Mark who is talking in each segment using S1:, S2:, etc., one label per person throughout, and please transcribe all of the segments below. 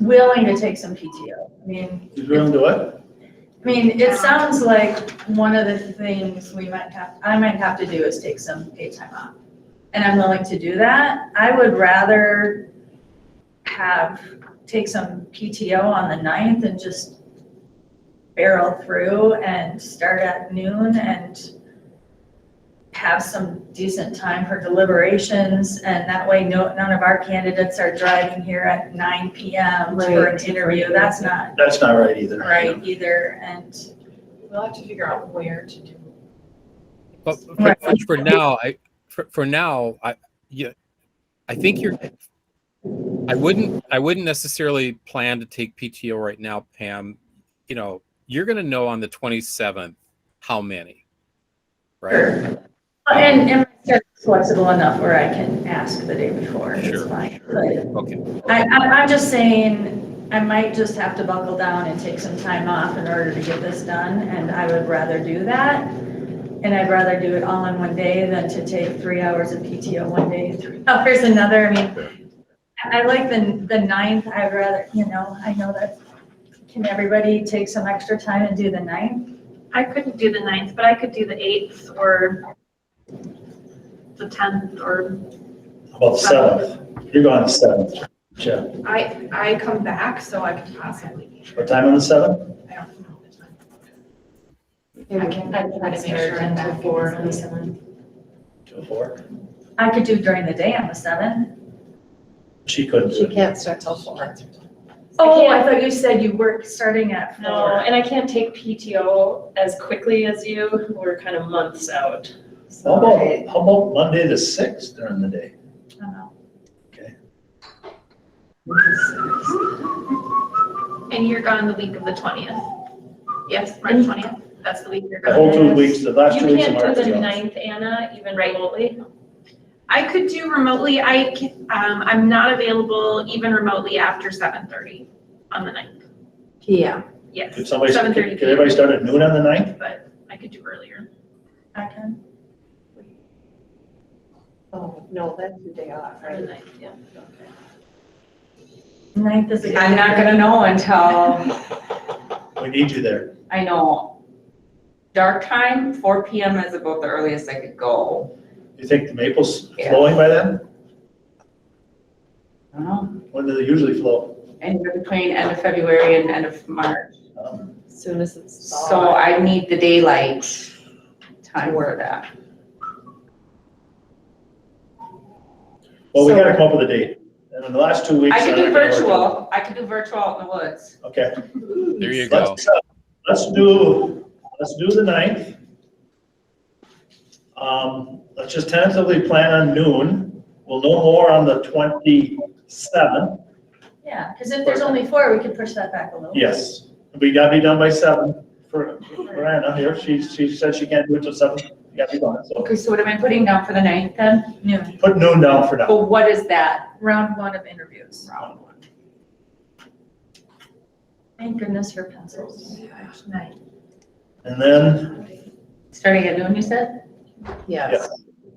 S1: willing to take some PTO. I mean,
S2: He's willing to what?
S1: I mean, it sounds like one of the things we might have, I might have to do is take some paid time off. And I'm willing to do that. I would rather have, take some PTO on the ninth and just barrel through and start at noon and have some decent time for deliberations, and that way no, none of our candidates are driving here at nine PM for an interview. That's not
S2: That's not right either.
S1: right either, and
S3: We'll have to figure out where to do.
S4: But for, for- for now, I for, for now, I yeah, I think you're. I wouldn't. I wouldn't necessarily plan to take PTO right now, Pam. You know, you're going to know on the 27th how many, right?
S1: and, and they're flexible enough where I can ask the day before, it's
S4: Sure,
S1: fine.
S4: Okay.
S1: But I, I, I'm just saying, I might just have to buckle down and take some time off in order to get this done, and I would rather do that. And I'd rather do it all in one day than to take three hours of PTO one day, three hours another, I mean, I I like the, the ninth, I'd rather, you know, I know that, can everybody take some extra time and do the ninth?
S5: I couldn't do the ninth, but I could do the eighth or the tenth or,
S2: How About the seventh. You're going to seventh. Yeah.
S3: I, I come back, so I could possibly, be here.
S2: What time on the seventh?
S3: I don't know. the time.
S6: I can, I can make sure I'm back before the seventh.
S2: Two or four?
S1: I could do during the day on the seventh.
S2: She couldn't do
S6: She
S2: it.
S6: can't start till four.
S1: Oh, I
S5: can't-
S1: thought you said you work starting at
S5: no,
S1: four.
S5: and I can't take PTO as quickly as you. We're kind of months out.
S2: How about, how about Monday the sixth during the day?
S1: Oh.
S3: And you're gone the week of the twentieth? Yes, March twentieth, that's the week you're
S2: The
S3: gone.
S2: whole two weeks, the last
S5: You
S2: two weeks of
S5: can't
S2: March.
S5: do the
S2: yeah.
S5: ninth, Anna, even
S3: Right.
S5: remotely?
S3: I could do remotely, I, ca- um, I'm not available even remotely after seven thirty on the ninth,
S6: Yeah.
S3: yes.
S2: Could somebody, could
S3: 7:30
S2: could everybody start at noon on the ninth?
S3: But I could do earlier.
S1: I can.
S6: Oh, no, that's the day off,
S3: or the
S6: right?
S3: ninth, yeah.
S1: Ninth is. a good
S7: I'm not
S1: day.
S7: gonna know until,
S2: We need you there.
S7: I know, dark time, four PM is about the earliest I could go.
S2: You think the maple's
S7: Yeah.
S2: flowing by then?
S7: I don't know,
S2: When do they usually flow?
S7: anywhere between end of February and end of March.
S2: Um,
S6: Soon as it's.
S7: So I need the daylight time for that.
S2: Well, we
S6: So-
S2: gotta come up with a date. And in the last two weeks.
S7: I could
S2: they're
S7: do
S2: not gonna work.
S7: virtual, I could do virtual out in the woods.
S2: Okay.
S4: There you go.
S2: Let's, uh, let's do, let's do the ninth. Um, let's just tentatively plan on noon. We'll know more on the twenty-seventh,
S1: Yeah, because if there's only four, we could push that back a little.
S2: yes. We gotta be done by seven for, for Anna here. She, she said she can't do it till seven. We gotta be done, so
S7: Okay, so what am I putting down for the ninth then?
S1: Noon,
S2: put noon down for now.
S7: But what is that?
S1: round one of interviews. Thank goodness for pencils.
S3: Night.
S2: And then,
S7: Starting at noon, you said?
S2: Yeah.
S6: Yes.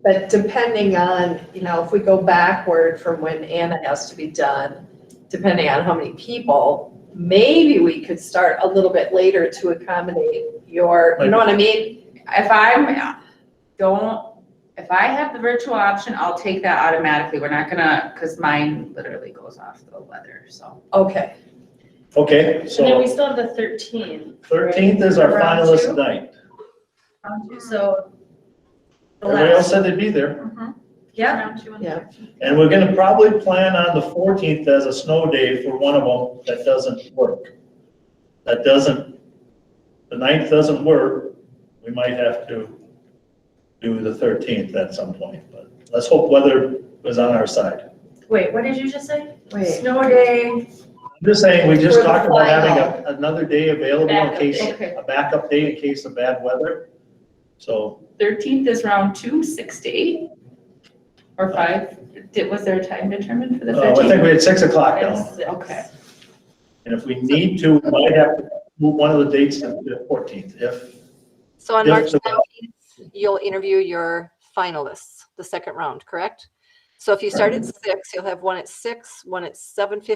S6: But depending on, you know, if we go backward from when Anna has to be done, depending on how many people, maybe we could start a little bit later to accommodate your, you know what I mean?
S7: If I'm, don't, if I have the virtual option, I'll take that automatically. We're not gonna, because mine literally goes off the weather, so.
S6: Okay,
S2: okay,
S5: And then we
S2: so
S5: still have the thirteenth.
S2: thirteenth is our
S1: Around two?
S2: finalist night.
S1: Round two, So. the
S2: Everybody else
S1: last-
S2: said they'd be there.
S1: Yeah,
S6: Mm-hmm. Yeah.
S2: And we're gonna probably plan on the fourteenth as a snow day for one of them that doesn't work. That doesn't, the ninth doesn't work, we might have to do the thirteenth at some point, but let's hope weather is on our side.
S1: wait, what did you just say?
S6: wait.
S1: Snow day,
S2: I'm just saying, we just
S6: For the
S2: talked about having
S6: final.
S2: a- another day available in
S5: Backup
S2: case,
S5: day.
S7: Okay.
S2: a backup day in case of bad weather. So,
S7: Thirteenth is round two, six to eight? Or five? Did, was there a time determined for the
S2: uh, I think
S7: thirteenth?
S2: we had six o'clock down,
S7: Okay.
S2: and if we need to, we might have to move one of the dates to the fourteenth, if
S8: So on March
S2: Yes, sir.
S8: 19th, you'll interview your finalists, the second round, correct? So if you start at 6, you'll have one at 6, one at 7:15,